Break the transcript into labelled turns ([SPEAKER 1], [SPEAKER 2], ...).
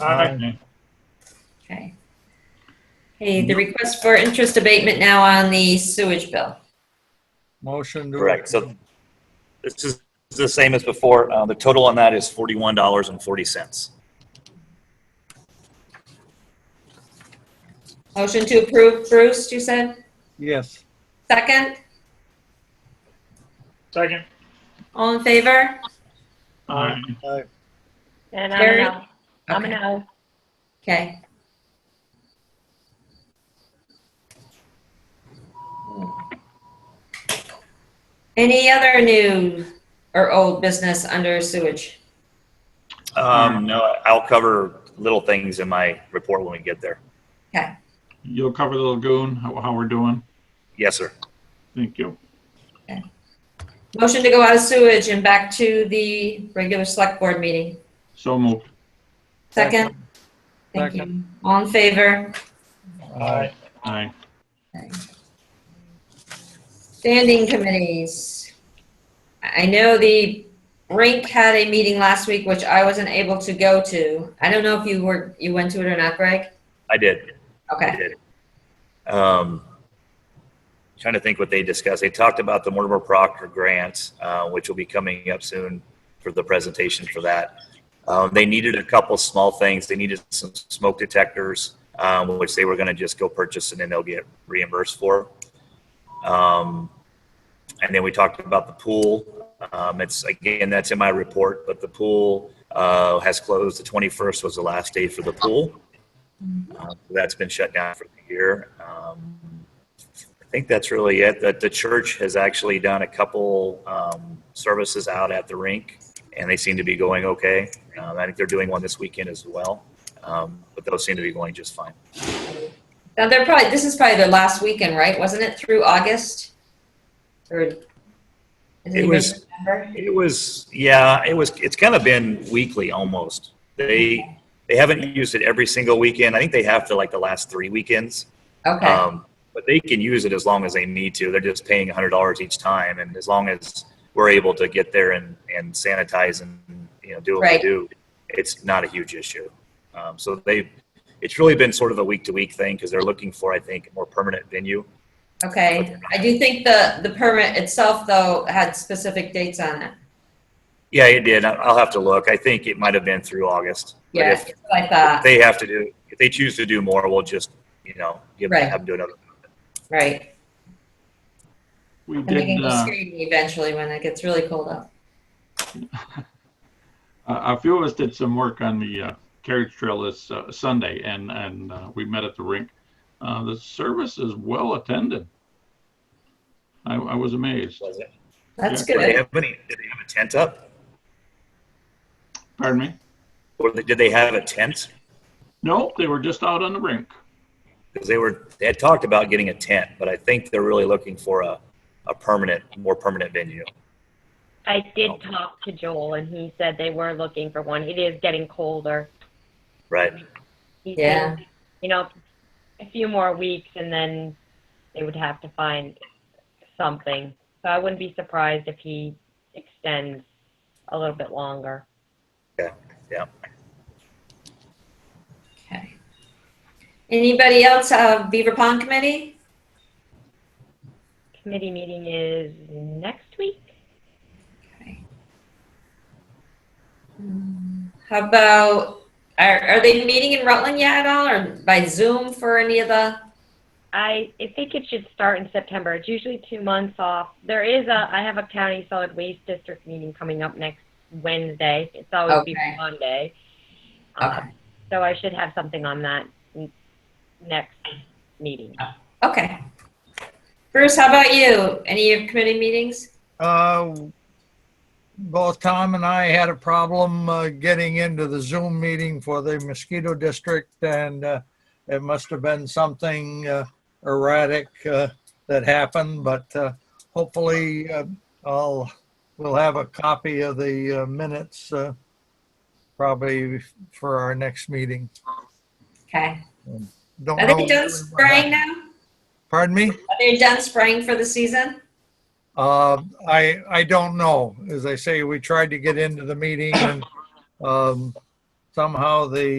[SPEAKER 1] Aye.
[SPEAKER 2] Okay. Okay, the request for interest abatement now on the sewage bill.
[SPEAKER 1] Motion to.
[SPEAKER 3] Correct, so- This is the same as before. Uh, The total on that is $41.40.
[SPEAKER 2] Motion to approve, Bruce, you said?
[SPEAKER 1] Yes.
[SPEAKER 2] Second?
[SPEAKER 4] Second.
[SPEAKER 2] All in favor?
[SPEAKER 4] Aye.
[SPEAKER 1] Aye.
[SPEAKER 5] And I'm
[SPEAKER 2] Carrie?
[SPEAKER 5] an aye. I'm an aye.
[SPEAKER 2] Okay. Any other new or old business under sewage?
[SPEAKER 3] Um, No, I'll cover little things in my report when we get there.
[SPEAKER 4] You'll cover the lagoon, how, how we're doing.
[SPEAKER 3] Yes, sir.
[SPEAKER 4] Thank you.
[SPEAKER 2] Motion to go out of sewage and back to the regular select board meeting.
[SPEAKER 4] So moved.
[SPEAKER 2] Second? Thank you.
[SPEAKER 1] Second.
[SPEAKER 2] All in favor?
[SPEAKER 1] Aye.
[SPEAKER 4] Aye.
[SPEAKER 2] Standing committees. I know the rink had a meeting last week, which I wasn't able to go to. I don't know if you were, you went to it or not, Greg?
[SPEAKER 3] I did. I
[SPEAKER 2] Okay,
[SPEAKER 3] did. Um, Trying to think what they discussed. They talked about the Mortimer Proctor grant, uh, which will be coming up soon for the presentation for that. Um, They needed a couple small things. They needed some smoke detectors, um, which they were going to just go purchase and then they'll get reimbursed for. Um, And then we talked about the pool. Um, It's, again, that's in my report, but the pool uh, has closed. The 21st was the last day for the pool. Uh, That's been shut down for the year. Um, I think that's really it. That the church has actually done a couple um, services out at the rink, and they seem to be going okay. Um, I think they're doing one this weekend as well, um, but those seem to be going just fine.
[SPEAKER 2] now they're probably, this is probably their last weekend, right? Wasn't it through August? Or? does anybody
[SPEAKER 3] was-
[SPEAKER 2] remember?
[SPEAKER 3] It was, yeah, it was. It's kind of been weekly almost. They they haven't used it every single weekend. I think they have to like the last three weekends.
[SPEAKER 2] Okay,
[SPEAKER 3] Um, but they can use it as long as they need to. They're just paying hundred dollars each time, and as long as we're able to get there and, and sanitize and you know do what
[SPEAKER 2] Right.
[SPEAKER 3] we do, it's not a huge issue. Um, so they, it's really been sort of a week to week thing because they're looking for I think a more permanent venue.
[SPEAKER 2] okay. I do think the, the permit itself though had specific dates on it.
[SPEAKER 3] Yeah, it did. I- I'll have to look. I think it might have been through August. But
[SPEAKER 2] Yeah,
[SPEAKER 3] if-
[SPEAKER 2] that's what I
[SPEAKER 3] if
[SPEAKER 2] thought,
[SPEAKER 3] they have to do if they choose to do more, we'll just you know give
[SPEAKER 2] Right.
[SPEAKER 3] have them do another.
[SPEAKER 2] right.
[SPEAKER 4] We
[SPEAKER 2] And they can
[SPEAKER 4] did,
[SPEAKER 2] go
[SPEAKER 4] uh,
[SPEAKER 2] skating eventually when it gets really cold out.
[SPEAKER 4] a a few of us did some work on the uh, carriage trail this uh, Sunday and, and uh, we met at the rink. Uh, The service is well attended. I, I was amazed.
[SPEAKER 3] Was it?
[SPEAKER 2] That's
[SPEAKER 3] Did they
[SPEAKER 2] good.
[SPEAKER 3] have any? Did they have a tent up,
[SPEAKER 4] Pardon me?
[SPEAKER 3] or did they have a tent?
[SPEAKER 4] No, they were just out on the rink.
[SPEAKER 3] because they were they had talked about getting a tent, but I think they're really looking for a, a permanent, more permanent venue.
[SPEAKER 5] I did talk to Joel and he said they were looking for one. It is getting colder.
[SPEAKER 3] Right.
[SPEAKER 5] He
[SPEAKER 2] Yeah.
[SPEAKER 5] said, You know, a few more weeks and then they would have to find something. So I wouldn't be surprised if he extends a little bit longer.
[SPEAKER 2] Okay. Anybody else, uh, Beaver Pond Committee?
[SPEAKER 5] Committee meeting is next week.
[SPEAKER 2] How about, are, are they meeting in Rutland yet at all, or by Zoom for any of the?
[SPEAKER 5] I, I think it should start in September. It's usually two months off. There is a, I have a county solid waste district meeting coming up next Wednesday. It's always
[SPEAKER 2] Okay.
[SPEAKER 5] before Monday. Uh,
[SPEAKER 2] Okay.
[SPEAKER 5] so I should have something on that n- next meeting.
[SPEAKER 2] Okay. Bruce, how about you? Any of your committee meetings?
[SPEAKER 1] Uh, Both Tom and I had a problem uh, getting into the Zoom meeting for the mosquito district, and uh, it must have been something uh, erratic uh, that happened, but uh, hopefully uh, I'll, we'll have a copy of the uh, minutes uh, probably for our next meeting.
[SPEAKER 2] Okay.
[SPEAKER 1] Don't
[SPEAKER 2] Are
[SPEAKER 1] know
[SPEAKER 2] they
[SPEAKER 1] really
[SPEAKER 2] done
[SPEAKER 1] what
[SPEAKER 2] spraying
[SPEAKER 1] happened.
[SPEAKER 2] now?
[SPEAKER 1] Pardon me?
[SPEAKER 2] Are they done spraying for the season?
[SPEAKER 1] Uh, I, I don't know. As I say, we tried to get into the meeting and um, somehow the